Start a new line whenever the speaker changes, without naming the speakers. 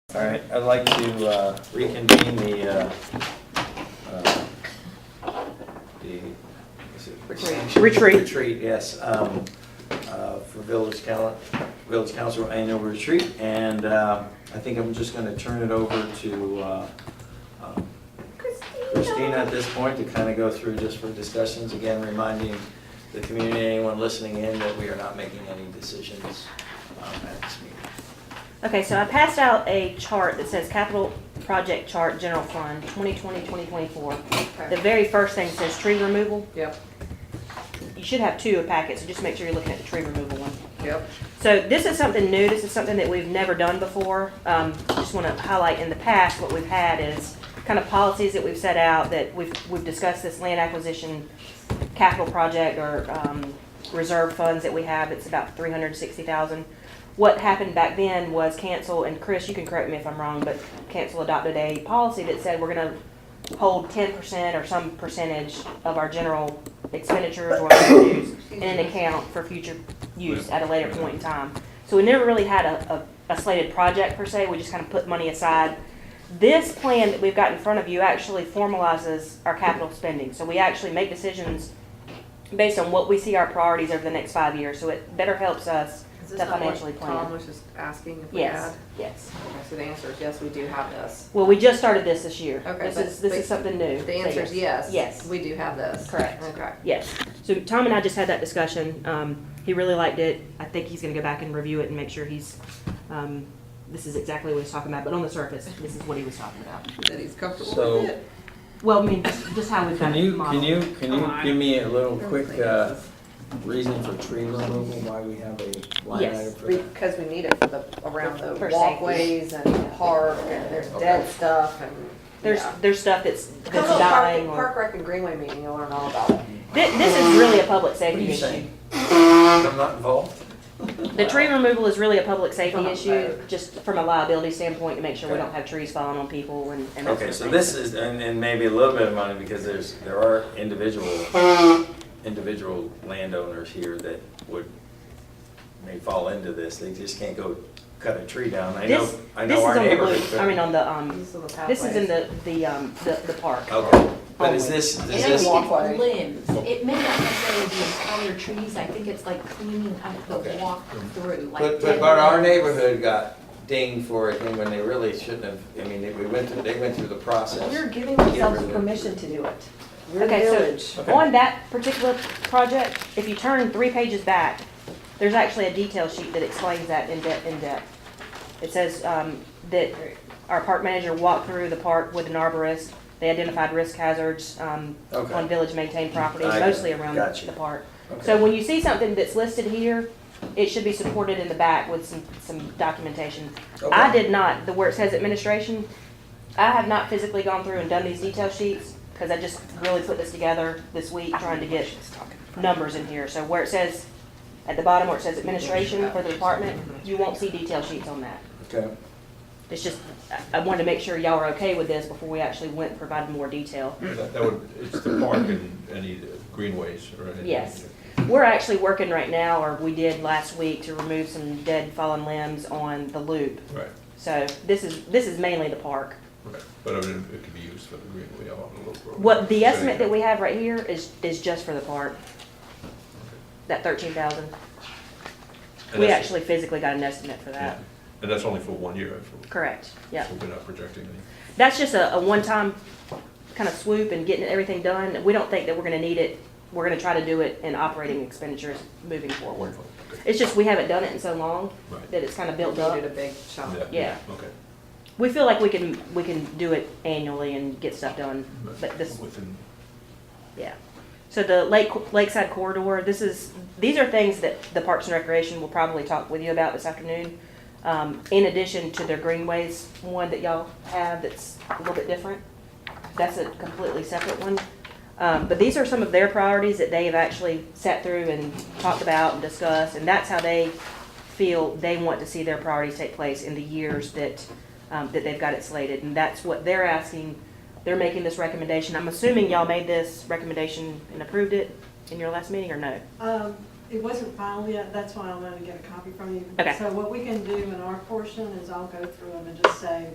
All right, I'd like to uh, reconvene the, uh, uh, the, is it extension?
Retreat.
Retreat, yes, um, uh, for Village Council, Village Council Annual Retreat. And uh, I think I'm just going to turn it over to uh, um, Christina at this point to kind of go through just for discussions. Again, reminding the community, anyone listening in, that we are not making any decisions um, at this meeting.
Okay, so I passed out a chart that says capital project chart, general fund, 2020, 2024. The very first thing says tree removal.
Yep,
You should have two a packet, so just make sure you're looking at the tree removal one.
yep.
So this is something new, this is something that we've never done before. Um, Just want to highlight, in the past, what we've had is kind of policies that we've set out, that we've, we've discussed this land acquisition capital project or um, reserve funds that we have, it's about three hundred and sixty thousand. What happened back then was cancel, and Chris, you can correct me if I'm wrong, but cancel adopted a policy that said we're gonna hold ten percent or some percentage of our general expenditures or revenues in an account for future use at a later point in time. So we never really had a, a, a slated project per se, we just kind of put money aside. This plan that we've got in front of you actually formalizes our capital spending, so we actually make decisions based on what we see our priorities over the next five years, so it better helps us to
Is this not what
financially plan.
Tom was just asking if we had?
Yes, yes.
Okay, So the answer is yes, we do have this.
Well, we just started this this year.
Okay,
This
but-
is, this
but
is something new.
The
So
answer is yes.
Yes.
We do have this.
Correct.
Okay.
Yes. So Tom and I just had that discussion. Um, he really liked it. I think he's gonna go back and review it and make sure he's, um, this is exactly what he's talking about, but on the surface, this is what he was talking about.
That he's comfortable
So-
with it.
Well, I mean, just how we've
Can
got
you,
it
can
modeled.
you, can you give me a little quick uh,
Yes.
reason for tree removal, why we have a line
Yes,
item for that?
Because we need it for the, around the
For safety.
walkways and the park and there's dead stuff and.
There's,
yeah.
there's stuff that's,
Come
that's
to a
dying
park,
or,
park rec and greenway meeting, you'll learn all about it.
this, this is really a public
What do
safety
you
issue.
say? I'm not involved?
The tree removal is really a public safety
Uh-huh.
issue, just from a liability standpoint, to make sure we don't have trees falling on people and, and that
Okay, so
sort of
this is, and, and maybe a little bit of money, because there's, there are individual, individual landowners here that would, may fall into this, they just can't go cut a tree down, I
thing.
know,
This,
I
this
know
is
our
on the
neighborhood.
loop,
but-
I mean, on the, um,
These are the
this is in
pathways.
the, the, um, the, the park.
Okay, but is this, is
It ain't
this,
walk-
okay,
walkway.
It's limbs, it may not necessarily be entire trees, I think it's like cleaning up the
Okay.
walk through, like.
But, but,
dead
but our
limbs.
neighborhood got dinged for it, and when they really shouldn't have, I mean, they, we went through, they went through the process.
We're giving
Get rid
ourselves
of it.
permission to do it. We're
Okay, so-
village.
Okay.
On that particular project, if you turn three pages back, there's actually a detail sheet that explains that in depth, in depth. It says, um, that our park manager walked through the park with an arborist. They identified risk hazards, um,
Okay.
on village maintained property,
I got it.
mostly around
Gotcha.
the park.
Okay.
So when you see something that's listed here, it should be supported in the back with some, some documentation. I
Okay.
did not, the where it says administration, I have not physically gone through and done these detail sheets, because I just really put this together this week, trying to get numbers in here. So where it says, at the bottom where it says administration for the department, you won't see detail sheets on that.
Okay,
It's just, I- I wanted to make sure y'all are okay with this before we actually went and provided more detail.
That that would, it's the park and any greenways or anything.
Yes. We're actually working right now, or we did last week, to remove some dead fallen limbs on the loop.
Right,
So this is, this is mainly the park.
right, but I mean, it could be used for the greenway along the local road.
What, the
So
estimate
they-
that we have right here is, is just for the park. That thirteen thousand.
and
We
that's-
actually physically got an estimate for
yeah.
that.
And that's only for one year, if we-
Correct, yeah.
so we're not projecting any.
That's just a, a one-time kind of swoop and getting everything done. We don't think that we're gonna need it. We're gonna try to do it in operating expenditures moving forward.
Okay.
It's just, we haven't done it in so long
Right.
that it's kind of built
We
up.
Needed a big chunk.
Oh, yeah.
Okay.
We feel like we can, we can do it annually and get stuff done, but this,
Within,
Yeah. So the lake, lakeside corridor, this is, these are things that the Parks and Recreation will probably talk with you about this afternoon. Um, in addition to their greenways, one that y'all have that's a little bit different. That's a completely separate one. Um, but these are some of their priorities that they have actually sat through and talked about and discussed, and that's how they feel they want to see their priorities take place in the years that, um, that they've got it slated. And that's what they're asking, they're making this recommendation. I'm assuming y'all made this recommendation and approved it in your last meeting, or no?
Um, it wasn't filed yet, that's why I wanted to get a copy from you.
Okay.
So what we can do in our portion is I'll go through them and just say,